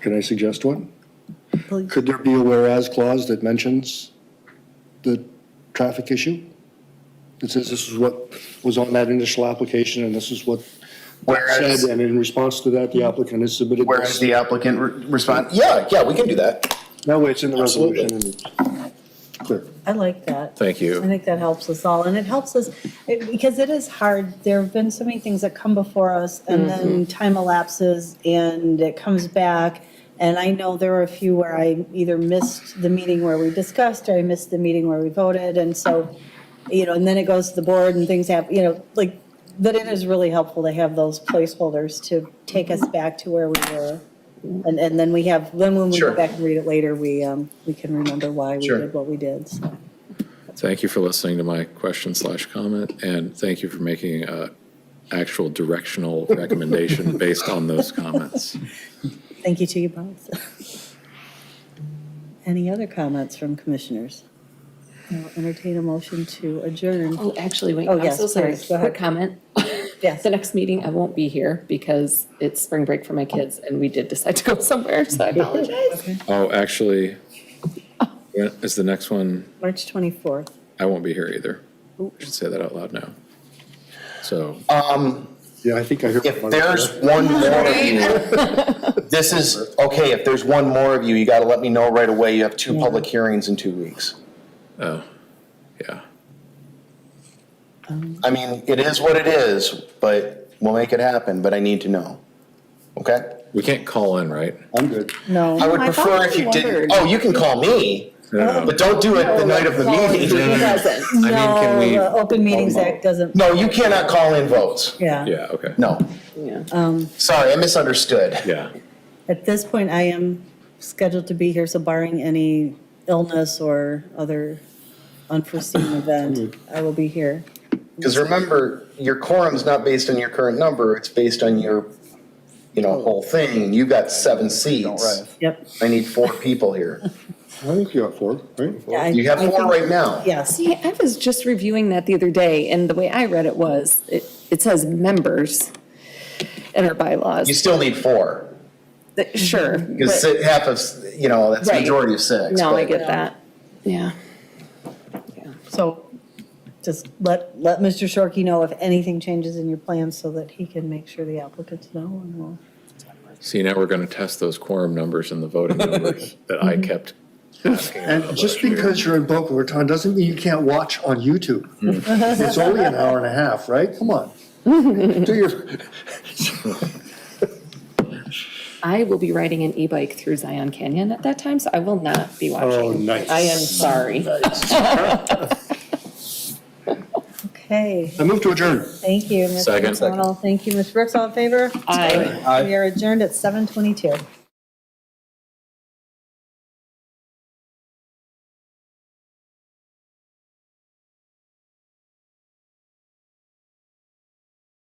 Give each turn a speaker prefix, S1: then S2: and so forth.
S1: Can I suggest one?
S2: Please.
S1: Could there be a whereas clause that mentions the traffic issue? It says this is what was on that initial application and this is what
S3: Whereas-
S1: said, and in response to that, the applicant has submitted.
S3: Whereas
S1: this.
S3: the applicant re- respond, yeah, yeah, we can do that.
S1: That way it's in the
S3: Absolutely.
S1: resolution and it's clear.
S2: I like that.
S4: Thank you.
S2: I think that helps us all, and it helps us, it- because it is hard, there have been so many things that come before us, and then time elapses, and it comes back, and I know there were a few where I either missed the meeting where we discussed, or I missed the meeting where we voted, and so, you know, and then it goes to the board and things happen, you know, like, but it is really helpful to have those placeholders to take us back to where we were. And, and then we have, then when we
S3: Sure.
S2: go back and read it later, we, um, we can remember why we
S3: Sure.
S2: did what we did, so.
S4: Thank you for listening to my question slash comment, and thank you for making a actual directional recommendation based on those comments.
S2: Thank you to you both. Any other comments from commissioners? I'll entertain a motion to adjourn.
S5: Oh, actually, wait,
S2: Oh,
S5: I'm
S2: yes,
S5: so sorry.
S2: please, go ahead.
S5: Quick comment.
S2: Yes.
S5: The next meeting, I won't be here because it's spring break for my kids and we did decide to go somewhere, so I apologize.
S4: Oh, actually, when- is the next one,
S2: March 24th.
S4: I won't be here either. I should say that out loud now. So,
S1: Yeah, I think I heard.
S3: If there's one more of you, this is, okay, if there's one more of you, you gotta let me know right away. You have two public hearings in two weeks.
S4: oh, yeah.
S3: I mean, it is what it is, but we'll make it happen, but I need to know. Okay?
S4: We can't call in, right?
S1: I'm good.
S2: No.
S3: I would
S5: I thought
S3: prefer if
S5: you
S3: you didn't,
S5: wondered.
S3: oh, you can call me,
S4: No, no.
S3: but don't do it the night of the meeting. Oh,
S4: I mean, can
S2: No,
S4: we-
S2: the Open Meetings Act doesn't,
S3: No, you cannot call in votes.
S2: yeah.
S4: Yeah, okay.
S3: No.
S5: Um.
S3: Sorry, I misunderstood.
S4: Yeah.
S2: At this point, I am scheduled to be here, so barring any illness or other unforeseen event, I will be here.
S3: Because remember, your quorum's not based on your current number, it's based on your, you
S2: Oh.
S3: know, whole thing. You've got seven seats.
S2: Yep.
S3: I need four people here.
S1: I think you got four, right?
S2: I-
S3: You have
S2: I
S3: four
S2: think-
S3: right now.
S2: Yes.
S5: See, I was just reviewing that the other day and the way I read it was, it, it says members in our
S3: You
S5: bylaws.
S3: still need four,
S1: mm-hmm.
S5: That- Sure.
S3: because
S5: but-
S3: half of, s- you know, that's a
S5: Right.
S3: majority of six.
S5: No, I
S3: but-
S5: get that. Yeah.
S2: So just let, let Mr. Shorkey know if anything changes in your plans so that he can make sure the applicants know and we'll.
S4: See, now we're going to test those quorum numbers and the voting numbers that I kept asking about.
S1: And just because you're in Boca Raton doesn't mean you can't watch on YouTube. It's only an hour and a half, right? Come on. Do your,
S5: I will be riding an e-bike through Zion Canyon at that time, so I will not be watching.
S1: Oh, nice.
S5: I am sorry.
S2: Okay,
S1: I move to adjourn.
S2: thank you, Mr.
S4: Second.
S2: McDonald. Thank you, Ms. Brooks, all in favor?
S5: Aye.
S2: We are adjourned at 7:22.